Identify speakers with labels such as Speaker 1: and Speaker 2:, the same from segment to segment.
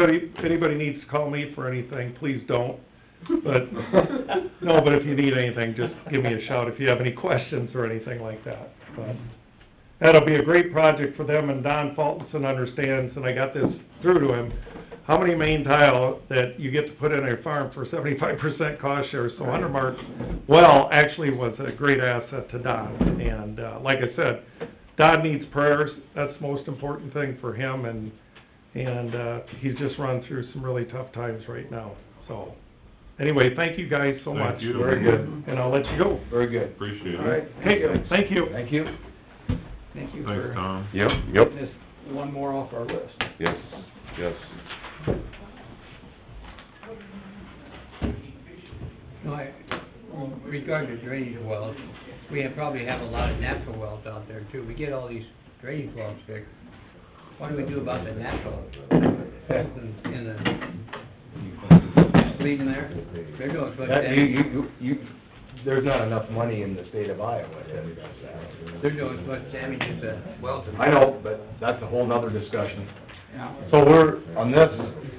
Speaker 1: If any- if anybody needs to call me for anything, please don't. But, no, but if you need anything, just give me a shout if you have any questions or anything like that. But That'll be a great project for them, and Don Fultonson understands, and I got this through to him, how many main tile that you get to put in a farm for seventy-five percent cost share, so Undermark well actually was a great asset to Don. And, uh, like I said, Don needs prayers, that's the most important thing for him, and, and, uh, he's just run through some really tough times right now, so. Anyway, thank you guys so
Speaker 2: Thank
Speaker 1: much.
Speaker 2: you.
Speaker 3: Very good.
Speaker 1: And I'll let you go.
Speaker 3: Very good.
Speaker 2: Appreciate it.
Speaker 3: All right.
Speaker 1: Hey, thank you.
Speaker 3: Thank you.
Speaker 4: Thank you
Speaker 2: Thanks,
Speaker 4: for
Speaker 2: Tom.
Speaker 5: Yep, yep,
Speaker 4: getting this one more off our list.
Speaker 5: yes, yes.
Speaker 6: No, I, regarding the drainage wells, we have- probably have a lot of natural wells out there too. We get all these drainage wells fixed. What do we do about the natural? That's in, in the, leaving there? They're doing, but
Speaker 3: That, you,
Speaker 6: that,
Speaker 3: you, you, you- there's not enough money in the state of Iowa to address that.
Speaker 6: they're doing as much damage as the wells. are-
Speaker 3: I know, but that's a whole nother discussion.
Speaker 6: Yeah.
Speaker 3: So we're, on this,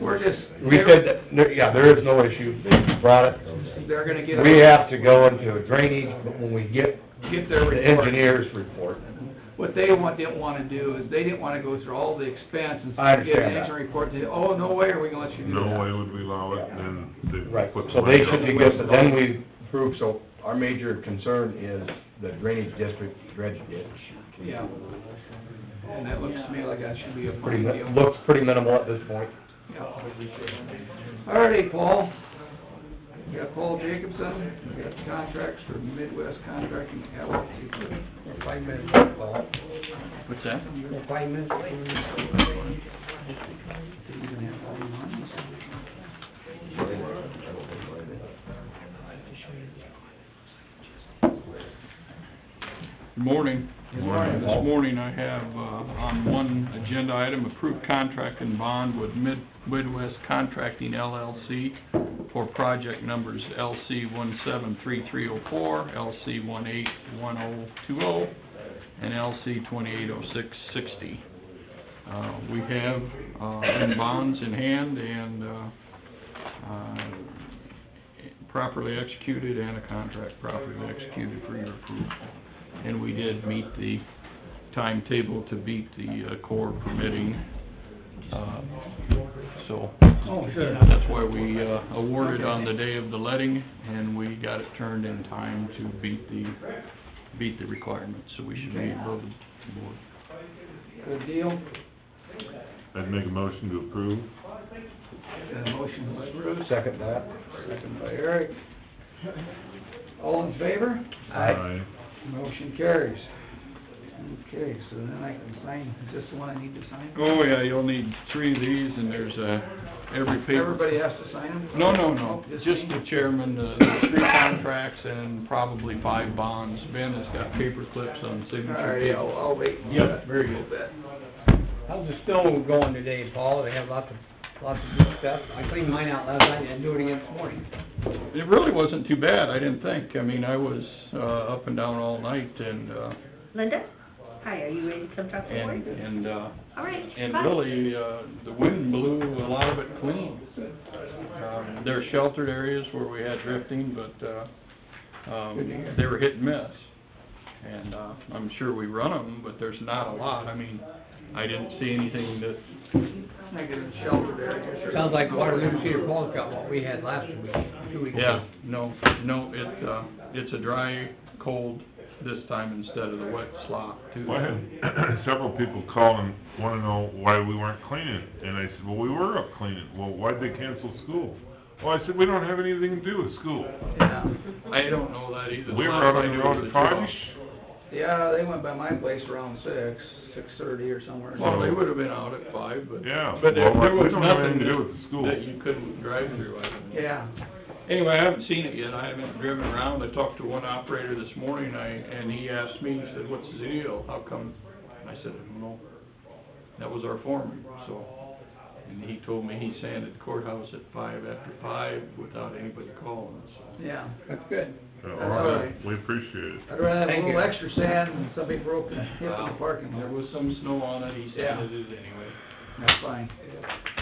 Speaker 3: we're just, we said that, there- yeah, there is no issue, they brought it.
Speaker 6: They're gonna get.
Speaker 3: We have to go into a drainage, but when we get
Speaker 4: Get
Speaker 3: the
Speaker 4: their report.
Speaker 3: engineer's report,
Speaker 4: What they want, didn't wanna do is, they didn't wanna go through all the expense and
Speaker 3: I
Speaker 4: get
Speaker 3: understand
Speaker 4: an
Speaker 3: that.
Speaker 4: engineering report, they, oh, no way are we gonna let you do that.
Speaker 2: No way would we allow it, then they
Speaker 3: right,
Speaker 2: put the...
Speaker 3: so they
Speaker 2: lights
Speaker 3: should be
Speaker 2: out.
Speaker 3: good, but then we approve, so our major concern is the drainage district dredge ditch.
Speaker 4: Yeah. And that looks to me like that should be a
Speaker 3: Pretty, mi-
Speaker 4: funny deal.
Speaker 3: looks pretty minimal at this point.
Speaker 4: Yeah. Alrighty, Paul. We got Paul Jacobson, we got contracts for Midwest Contracting LLC.
Speaker 6: We're five minutes late, Paul.
Speaker 7: What's that?
Speaker 6: We're five minutes late.
Speaker 7: Good morning.
Speaker 2: Good morning.
Speaker 7: This morning I have, uh, on one agenda item, approved contract and bond with Mid- Midwest Contracting LLC for project numbers LC one seven three three oh four, LC one eight one oh two oh, and LC twenty-eight oh six sixty. Uh, we have, uh, in bonds in hand and, uh, uh, properly executed and a contract properly executed for your approval. And we did meet the timetable to beat the uh, core permitting. uh, So,
Speaker 6: Oh, sure.
Speaker 7: that's why we uh, awarded on the day of the letting, and we got it turned in time to beat the, beat the requirements, so we should be above the board.
Speaker 4: Good deal.
Speaker 2: I'd make a motion to approve.
Speaker 4: Got a motion by Bruce,
Speaker 3: Second that.
Speaker 4: second by Eric. All in favor?
Speaker 2: Aye.
Speaker 4: Motion carries. Okay, so then I can sign, is this the one I need to sign?
Speaker 7: Oh, yeah, you'll need three of these, and there's a, every paper.
Speaker 4: Everybody has to sign them?
Speaker 7: No, no, no,
Speaker 4: Just
Speaker 7: just
Speaker 4: me?
Speaker 7: the chairman, the the three contracts, and probably five bonds. Ben has got paper clips on
Speaker 4: All
Speaker 7: signature.
Speaker 4: right, I'll, I'll wait. for
Speaker 7: Yep,
Speaker 4: that.
Speaker 7: very good.
Speaker 6: How's the stone going today, Paul? They have lots of, lots of good stuff. I cleaned mine out last night and do it again this morning.
Speaker 7: It really wasn't too bad, I didn't think. I mean, I was, uh, up and down all night, and, uh,
Speaker 8: Linda? Hi, are you ready to come talk to the
Speaker 7: and,
Speaker 8: board?
Speaker 7: and, uh,
Speaker 8: All right.
Speaker 7: and
Speaker 8: bye.
Speaker 7: really, uh, the wind blew a lot of it clean. Um, there are sheltered areas where we had drifting, but, uh, um, they were hit and miss. And, uh, I'm sure we run them, but there's not a lot. I mean, I didn't see anything that
Speaker 4: Negative shelter area.
Speaker 6: Sounds like Waterloo Cedar Falls got what we had last week, two weeks ago.
Speaker 7: Yeah, no, no, it, uh, it's a dry, cold this time instead of the wet slop too.
Speaker 2: Well, I had several people call and wanna know why we weren't cleaning, and I said, well, we were up cleaning, well, why'd they cancel school? Well, I said, we don't have anything to do with school,
Speaker 4: Yeah,
Speaker 7: I don't know that either.
Speaker 2: we were
Speaker 7: Last
Speaker 2: out
Speaker 7: I
Speaker 2: on the
Speaker 7: knew
Speaker 2: road
Speaker 7: was
Speaker 2: at
Speaker 7: a draw.
Speaker 2: five-ish,
Speaker 4: yeah, they went by my place around six, six-thirty or somewhere.
Speaker 7: Well, they would've been out at five, but.
Speaker 2: Yeah,
Speaker 7: But there,
Speaker 2: well,
Speaker 7: there
Speaker 2: we
Speaker 7: was
Speaker 2: don't have anything
Speaker 7: nothing
Speaker 2: to do with the school.
Speaker 7: that you couldn't drive through. I don't know.
Speaker 4: Yeah,
Speaker 7: Anyway, I haven't seen it yet, I haven't driven around, I talked to one operator this morning, I, and he asked me, he said, what's the deal, how come? And I said, I don't know, that was our foreman, so, and he told me he sanded courthouse at five after five without anybody calling, so.
Speaker 4: yeah.
Speaker 6: That's good.
Speaker 2: Uh,
Speaker 4: That's all right.
Speaker 2: we appreciate it.
Speaker 4: I'd rather have
Speaker 6: Thank
Speaker 4: a little
Speaker 6: you.
Speaker 4: extra sand than somebody broke and hit in the
Speaker 7: Well,
Speaker 4: parking
Speaker 7: There
Speaker 4: lot.
Speaker 7: was some snow on it, he
Speaker 4: Yeah.
Speaker 7: sanded it anyway.
Speaker 4: That's fine.